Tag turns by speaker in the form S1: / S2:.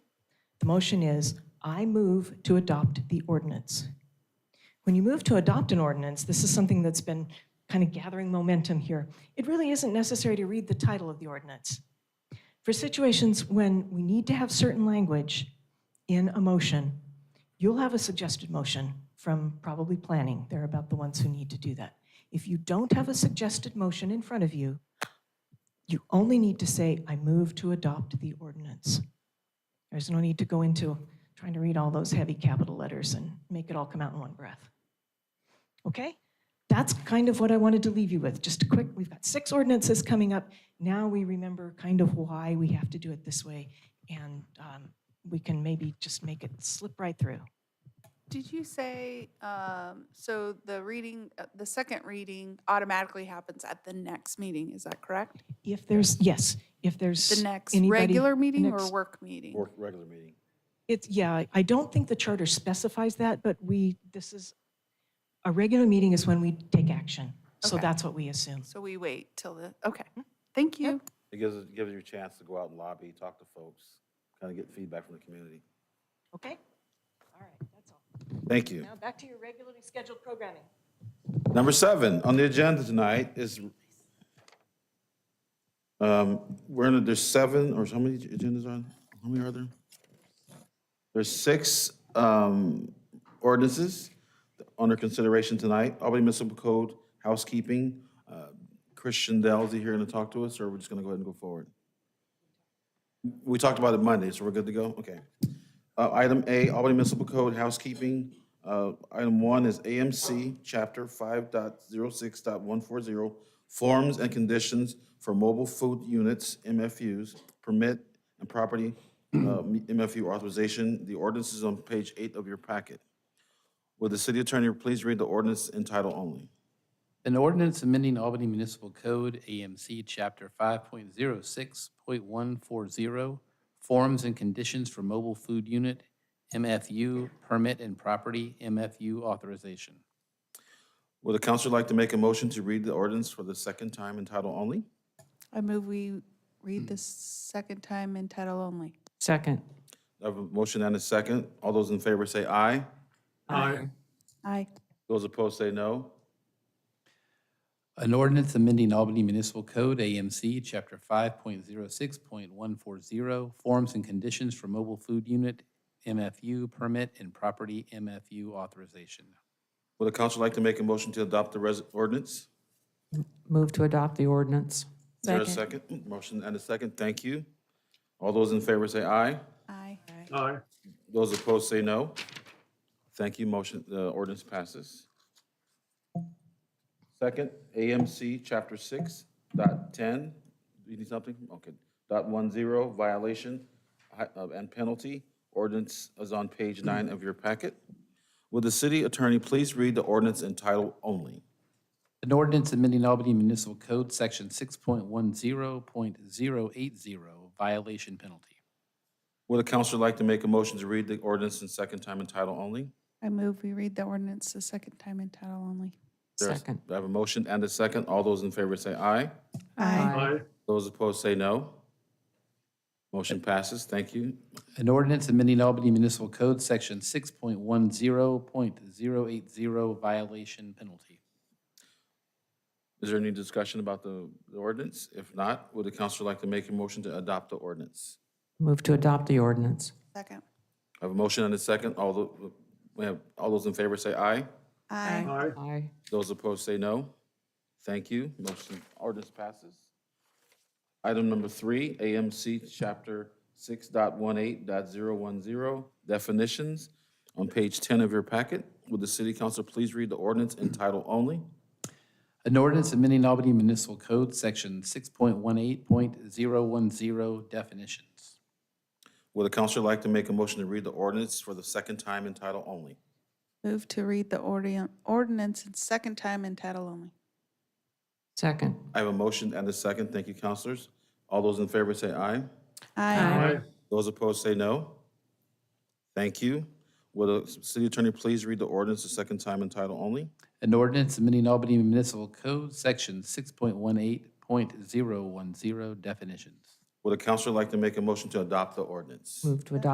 S1: The motion is, I move to adopt the ordinance. When you move to adopt an ordinance, this is something that's been kind of gathering momentum here. It really isn't necessary to read the title of the ordinance. For situations when we need to have certain language in a motion, you'll have a suggested motion from probably planning. They're about the ones who need to do that. If you don't have a suggested motion in front of you, you only need to say, I move to adopt the ordinance. There's no need to go into trying to read all those heavy capital letters and make it all come out in one breath. Okay? That's kind of what I wanted to leave you with. Just a quick, we've got six ordinances coming up. Now we remember kind of why we have to do it this way, and um, we can maybe just make it slip right through.
S2: Did you say, um, so the reading, uh, the second reading automatically happens at the next meeting, is that correct?
S1: If there's, yes, if there's.
S2: The next
S1: anybody-
S2: regular meeting or
S1: next-
S2: work meeting?
S3: Work, regular meeting.
S1: It's, yeah, I don't think the charter specifies that, but we, this is, a regular meeting is when we take action. So
S2: Okay.
S1: that's what we assume.
S2: So we wait till the, okay, thank you.
S3: It gives, it gives you a chance to go out and lobby, talk to folks, kind of get feedback from the community.
S1: Okay? All right, that's all.
S3: Thank you.
S1: Now, back to your regularly scheduled programming.
S3: Number seven on the agenda tonight is, um, we're in, there's seven, or how many agendas on? How many are there? There's six, um, ordinances under consideration tonight. Albany Municipal Code, housekeeping. Uh, Christian Dell's here to talk to us, or we're just gonna go ahead and go forward? We talked about it Monday, so we're good to go? Okay. Uh, Item A, Albany Municipal Code Housekeeping. Uh, Item one is AMC, Chapter 5.06.140, Forms and Conditions for Mobile Food Units, MFUs, Permit and Property uh, MFU Authorization. The ordinance is on page eight of your packet. Will the city attorney please read the ordinance in title only?
S4: An ordinance amending Albany Municipal Code, AMC, Chapter 5.06.140, oh, Forms and Conditions for Mobile Food Unit, MFU, Permit and Property, MFU Authorization.
S3: Would the council like to make a motion to read the ordinance for the second time in title only?
S2: I move we read this second time in title only.
S5: Second.
S3: I have a motion and a second. All those in favor say aye.
S5: Aye.
S2: Aye.
S3: Those opposed say no.
S4: An ordinance amending Albany Municipal Code, AMC, Chapter 5.06.140, oh, Forms and Conditions for Mobile Food Unit, MFU, Permit and Property, MFU Authorization.
S3: Would the council like to make a motion to adopt the res- ordinance?
S5: Move to adopt the ordinance.
S3: Is there a second? Mm, Motion and a second, thank you. All those in favor say aye.
S2: Aye.
S6: Aye.
S3: Those opposed say no. Thank you, motion, the ordinance passes. Second, AMC Chapter 6 dot 10, you need something? Okay, dot 10, violation hi- uh, and penalty. Ordinance is on page 9 of your packet. Would the city attorney please read the ordinance in title only?
S4: An ordinance amending Albany Municipal Code, Section 6.10.080, violation penalty.
S3: Would the council like to make a motion to read the ordinance in second time in title only?
S2: I move we read the ordinance the second time in title only.
S3: There's-
S5: Second.
S3: I have a motion and a second. All those in favor say aye.
S2: Aye.
S6: Aye.
S3: Those opposed say no. Motion passes. Thank you.
S4: An ordinance amending Albany Municipal Code, Section 6.10.080, violation penalty.
S3: Is there any discussion about the the ordinance? If not, would the council like to make a motion to adopt the ordinance?
S5: Move to adopt the ordinance.
S2: Second.
S3: I have a motion and a second. All the, we have, all those in favor say aye.
S2: Aye.
S6: Aye.
S5: Aye.
S3: Those opposed say no. Thank you. Motion, ordinance passes. Item number three, AMC Chapter 6.18.010 definitions, on page ten of your packet. Would the city council please read the ordinance in title only?
S4: An ordinance amending Albany Municipal Code, Section 6.18.010, definitions.
S3: Would the council like to make a motion to read the ordinance for the second time in title only?
S2: Move to read the ordi- ordinance in second time in title only.
S5: Second.
S3: I have a motion and a second. Thank you, councilors. All those in favor say aye.
S2: Aye.
S3: Those opposed say no. Thank you. Will the city attorney please read the ordinance the second time in title only?
S4: An ordinance amending Albany Municipal Code, Section 6.18.010, definitions.
S3: Would the council like to make a motion to adopt the ordinance?
S5: Move to adopt